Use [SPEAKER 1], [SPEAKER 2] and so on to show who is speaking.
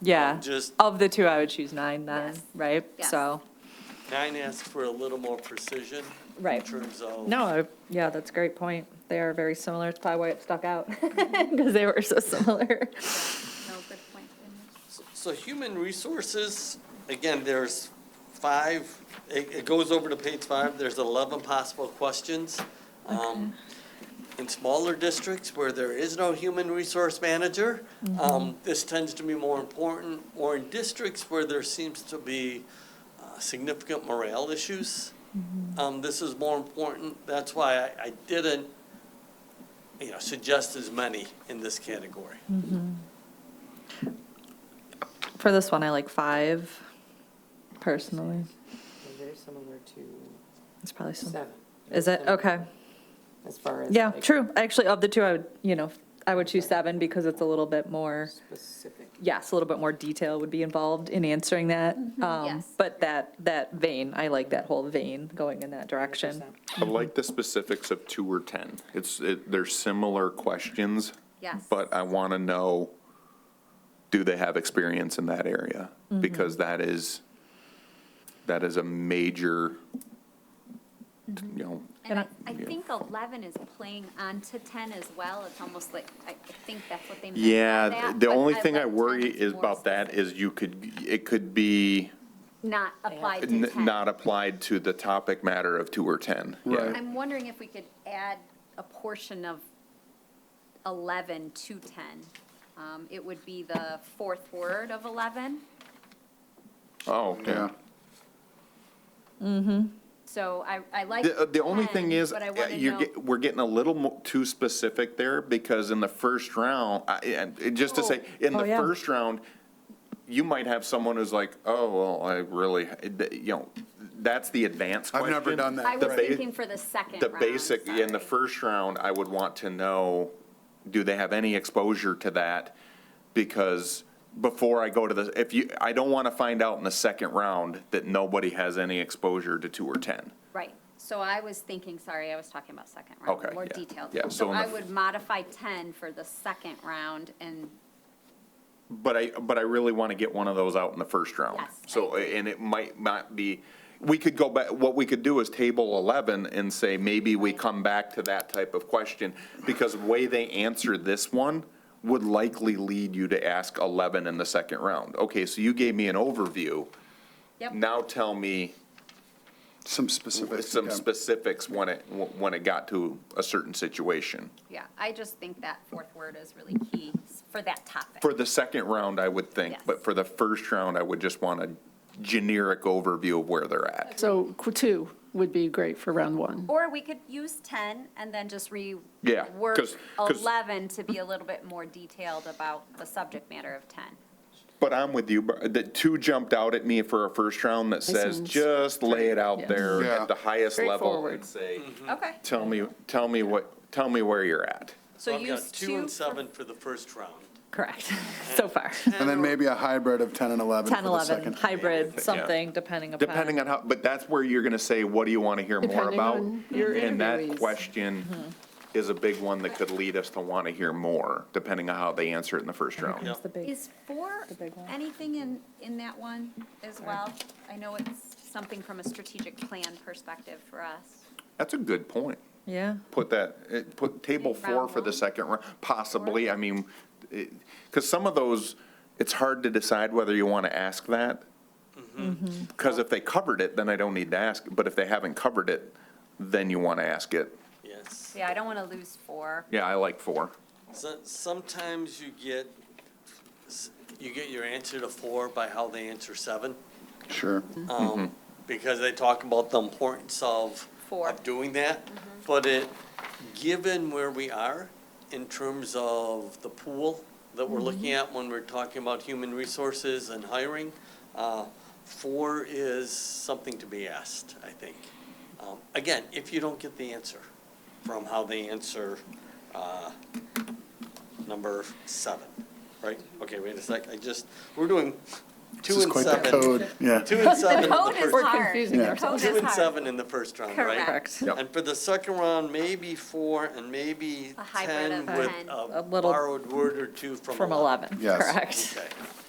[SPEAKER 1] Yeah.
[SPEAKER 2] Just-
[SPEAKER 1] Of the two, I would choose nine then,
[SPEAKER 3] Yes.
[SPEAKER 1] right?
[SPEAKER 3] Yes.
[SPEAKER 1] So,
[SPEAKER 2] Nine asks for a little more precision.
[SPEAKER 1] Right.
[SPEAKER 2] In terms of.
[SPEAKER 1] no, I- yeah, that's a great point. They are very similar. It's probably why it stuck out, because they were so similar.
[SPEAKER 3] No, good point. Goodness.
[SPEAKER 2] So human resources, again, there's five, it, it goes over to page five, there's eleven possible questions. Um, In smaller districts where there is no human resource manager, um, this tends to be more important, or in districts where there seems to be uh, significant morale issues. Um, this is more important, that's why I, I didn't, you know, suggest as many in this category.
[SPEAKER 1] For this one, I like five personally.
[SPEAKER 4] They're Very similar to
[SPEAKER 1] It's probably some,
[SPEAKER 4] seven.
[SPEAKER 1] is it? Okay.
[SPEAKER 4] As far as.
[SPEAKER 1] Yeah,
[SPEAKER 4] like,
[SPEAKER 1] true. Actually, of the two, I would, you know, I would choose seven because it's a little bit more,
[SPEAKER 4] Specific.
[SPEAKER 1] yes, a little bit more detail would be involved in answering that. Um,
[SPEAKER 3] Mm-hmm. yes.
[SPEAKER 1] But that, that vein, I like that whole vein going in that direction.
[SPEAKER 4] 100%.
[SPEAKER 5] I like the specifics of two or 10. It's, it- they're similar questions.
[SPEAKER 3] Yes.
[SPEAKER 5] But I want to know, do they have experience in that area?
[SPEAKER 3] Mm-hmm.
[SPEAKER 5] Because that is, that is a major, you know,
[SPEAKER 3] And I,
[SPEAKER 1] And
[SPEAKER 3] I
[SPEAKER 5] yeah.
[SPEAKER 3] think eleven is playing onto ten as well. It's almost like, I I think that's what they meant by
[SPEAKER 5] yeah,
[SPEAKER 3] that,
[SPEAKER 5] the
[SPEAKER 3] but
[SPEAKER 5] only thing I
[SPEAKER 3] like 10
[SPEAKER 5] worry is
[SPEAKER 3] more
[SPEAKER 5] about that
[SPEAKER 3] specific.
[SPEAKER 5] is you could, it could be
[SPEAKER 3] Not applied to
[SPEAKER 5] n-
[SPEAKER 3] ten.
[SPEAKER 5] not applied to the topic matter of two or 10. Yeah.
[SPEAKER 3] I'm wondering if we could add a portion of eleven to ten. Um, it would be the fourth word of eleven.
[SPEAKER 5] Oh, yeah.
[SPEAKER 3] So I, I like.
[SPEAKER 5] The, uh, the only
[SPEAKER 3] 10,
[SPEAKER 5] thing is, uh,
[SPEAKER 3] But I want to
[SPEAKER 5] you're,
[SPEAKER 3] know.
[SPEAKER 5] get- we're getting a little mo- too specific there, because in the first round, I, and, and just to say, in
[SPEAKER 1] Oh,
[SPEAKER 5] the
[SPEAKER 1] yeah.
[SPEAKER 5] first round, you might have someone who's like, oh, well, I really, you know, that's the advanced
[SPEAKER 6] I've
[SPEAKER 5] question.
[SPEAKER 6] never done that.
[SPEAKER 3] I
[SPEAKER 5] the
[SPEAKER 3] was
[SPEAKER 5] ba-
[SPEAKER 3] thinking for the second
[SPEAKER 5] The
[SPEAKER 3] round,
[SPEAKER 5] basic, in the
[SPEAKER 3] sorry.
[SPEAKER 5] first round, I would want to know, do they have any exposure to that? Because before I go to the, if you, I don't want to find out in the second round that nobody has any exposure to two or 10.
[SPEAKER 3] Right, so I was thinking, sorry, I was talking about second round.
[SPEAKER 5] Okay,
[SPEAKER 3] More
[SPEAKER 5] yeah,
[SPEAKER 3] detailed.
[SPEAKER 5] yeah, so
[SPEAKER 3] So
[SPEAKER 5] in the
[SPEAKER 3] I
[SPEAKER 5] f-
[SPEAKER 3] would modify ten for the second round and,
[SPEAKER 5] But I, but I really want to get one of those out in the first round.
[SPEAKER 3] Yes, I
[SPEAKER 5] So, and it might not be, we could go back, what we could do is table 11 and say, maybe we come back to that type of question, because the way they answer this one would likely lead you to ask 11 in the second round. Okay, so you gave me an overview,
[SPEAKER 3] yep.
[SPEAKER 5] now tell me
[SPEAKER 6] Some specifics.
[SPEAKER 5] some
[SPEAKER 6] okay.
[SPEAKER 5] specifics when it, when it got to a certain situation.
[SPEAKER 3] Yeah, I just think that fourth word is really key for that topic.
[SPEAKER 5] For the second round, I would think,
[SPEAKER 3] Yes.
[SPEAKER 5] but for the first round, I would just want a generic overview of where they're at.
[SPEAKER 7] So qu- two would be great for round one.
[SPEAKER 3] Or we could use ten and then just re.
[SPEAKER 5] Yeah,
[SPEAKER 3] Work
[SPEAKER 5] 'cause- 'cause-
[SPEAKER 3] eleven to be a little bit more detailed about the subject matter of ten.
[SPEAKER 5] But I'm with you, but the two jumped out at me for a first round that says,
[SPEAKER 7] seems-
[SPEAKER 5] just lay it out there
[SPEAKER 6] Yeah.
[SPEAKER 5] at the highest level
[SPEAKER 7] Straightforward.
[SPEAKER 5] and say,
[SPEAKER 3] Okay,
[SPEAKER 5] tell me, tell me what, tell me where you're at.
[SPEAKER 3] so
[SPEAKER 2] I've got
[SPEAKER 3] use
[SPEAKER 2] two
[SPEAKER 3] two,
[SPEAKER 2] and seven for the first round.
[SPEAKER 1] Correct, so far.
[SPEAKER 6] And then maybe a hybrid of 10 and 11 for
[SPEAKER 1] 10,
[SPEAKER 6] the
[SPEAKER 1] 11,
[SPEAKER 6] second.
[SPEAKER 1] hybrid, something, depending upon.
[SPEAKER 5] Depending on how, but that's where you're gonna say, what do you wanna hear more
[SPEAKER 7] Depending
[SPEAKER 5] about?
[SPEAKER 7] on your
[SPEAKER 5] And that
[SPEAKER 7] interviewees. Mm-hmm.
[SPEAKER 5] question is a big one that could lead us to wanna hear more, depending on how they answer it in the first round.
[SPEAKER 2] Yeah.
[SPEAKER 1] That's the big-
[SPEAKER 3] is four
[SPEAKER 1] The big one.
[SPEAKER 3] anything in, in that one as well? I know it's something from a strategic plan perspective for us.
[SPEAKER 5] That's a good point.
[SPEAKER 1] Yeah.
[SPEAKER 5] put that, eh, put table four
[SPEAKER 3] Round
[SPEAKER 5] for the
[SPEAKER 3] one?
[SPEAKER 5] second round, possibly, I mean, because some of those, it's hard to decide whether you want to ask that.
[SPEAKER 3] Mm-hmm.
[SPEAKER 5] Because if they covered it, then I don't need to ask, but if they haven't covered it, then you want to ask it.
[SPEAKER 2] Yes.
[SPEAKER 3] Yeah, I don't want to lose four.
[SPEAKER 5] Yeah, I like four.
[SPEAKER 2] So- Sometimes you get, you get your answer to four by how they answer seven,
[SPEAKER 6] Sure. Mm-hmm.
[SPEAKER 2] um, because they talk about the importance of,
[SPEAKER 3] Four.
[SPEAKER 2] of doing that. But it, given where we are in terms of the pool that we're looking at when we're talking about human resources and hiring, uh, four is something to be asked, I think. Um, Again, if you don't get the answer from how they answer uh, number seven, right? Okay, wait a sec, I just, we're doing
[SPEAKER 6] This
[SPEAKER 2] two
[SPEAKER 6] is
[SPEAKER 2] and
[SPEAKER 6] quite the
[SPEAKER 2] seven.
[SPEAKER 6] code, yeah.
[SPEAKER 2] Two and seven.
[SPEAKER 3] The
[SPEAKER 2] in uh, the
[SPEAKER 3] code is
[SPEAKER 2] first-
[SPEAKER 3] hard.
[SPEAKER 7] confusing
[SPEAKER 3] The
[SPEAKER 7] ourselves.
[SPEAKER 3] code
[SPEAKER 2] Two
[SPEAKER 3] is
[SPEAKER 2] and
[SPEAKER 3] hard.
[SPEAKER 2] seven in the first round, right?
[SPEAKER 3] Correct.
[SPEAKER 1] Correct.
[SPEAKER 5] Yep.
[SPEAKER 2] And for the second round, maybe four and maybe
[SPEAKER 3] A hybrid
[SPEAKER 2] 10
[SPEAKER 3] of
[SPEAKER 2] with
[SPEAKER 3] 10.
[SPEAKER 2] a
[SPEAKER 1] A little-
[SPEAKER 2] borrowed word or two from
[SPEAKER 1] From
[SPEAKER 2] 11.
[SPEAKER 1] 11,
[SPEAKER 6] Yes.
[SPEAKER 1] correct.
[SPEAKER 2] Okay.